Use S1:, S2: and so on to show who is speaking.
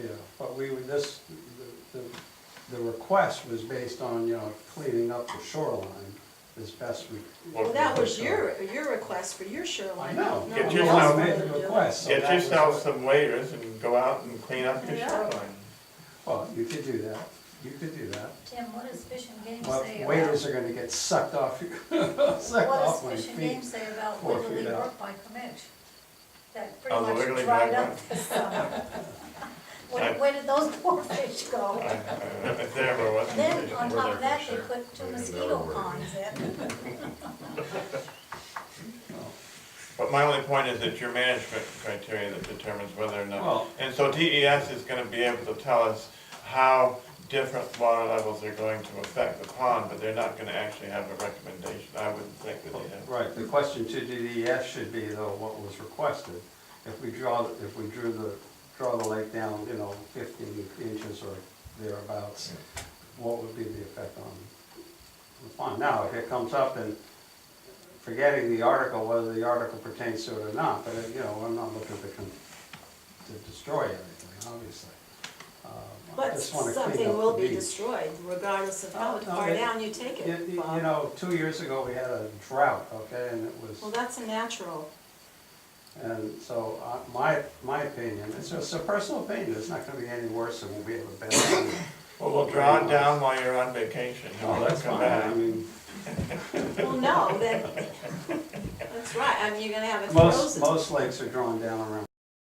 S1: Yeah, but we, would- this, the, the- the request was based on, you know, cleaning up the shoreline as best we.
S2: Well, that was your, your request for your shoreline.
S1: I know.
S2: not
S1: Well,
S2: what
S1: we
S2: else
S1: all
S2: wanted
S1: made
S2: to
S1: the
S2: do.
S1: request. so
S3: Get
S1: that was-
S3: yourself some waiters and go out and clean up your
S2: Yeah.
S3: shoreline.
S1: Well, you could do that, you could do that,
S4: Tim, what does Fish and Game
S1: but
S4: say
S1: waiters
S4: about,
S1: are gonna get sucked off, your- sucked off
S4: what
S1: my
S4: does Fish and
S1: feet.
S4: Game say about
S1: four
S4: Wiggly
S1: feet out.
S4: Brook by Comanche? That
S3: Oh, the
S4: pretty
S3: Wiggly
S4: much dried
S3: Brook
S4: up
S3: one.
S4: this summer.
S3: I-
S4: Where, where did those poor fish
S3: I-
S4: go?
S3: I- If there ever was.
S4: Then,
S5: Where
S4: on top
S5: they're
S4: of that, they
S5: concerned,
S4: put two
S5: they can
S4: mosquito
S5: never worry.
S4: ponds in.
S1: Well,
S3: But my only point is that your management criteria that determines whether or not.
S1: Well-
S3: And so DES is gonna be able to tell us how different water levels are going to affect the pond, but they're not gonna actually have a recommendation. I wouldn't think that they have.
S1: Right, the question to DES should be though, what was requested? If we draw, if we drew the, draw the lake down, you know, fifteen inches or thereabouts, what would be the effect on the pond? Now, if it comes up and forgetting the article, whether the article pertains to it or not, but, you know, I'm not looking to, con- to destroy everything, obviously. Um, I
S2: But
S1: just wanna clean up
S2: something
S1: the
S2: will be
S1: beach.
S2: destroyed regardless of
S1: Oh,
S2: how
S1: no,
S2: far
S1: it-
S2: down you take
S1: You,
S2: it,
S1: you you
S2: Bob.
S1: know, two years ago, we had a drought, okay, and it was.
S2: Well, that's a natural.
S1: And so, uh, my, my opinion, it's just a personal opinion, it's not gonna be any worse than we'll be able to bet on.
S3: Well, we'll draw it down while you're on vacation. and
S1: Oh,
S3: we'll
S1: that's
S3: come
S1: fine, I
S3: back.
S1: mean,
S2: Well, no, that, that's right, I mean, you're gonna have it
S1: most,
S2: frozen.
S1: most lakes are drawn down around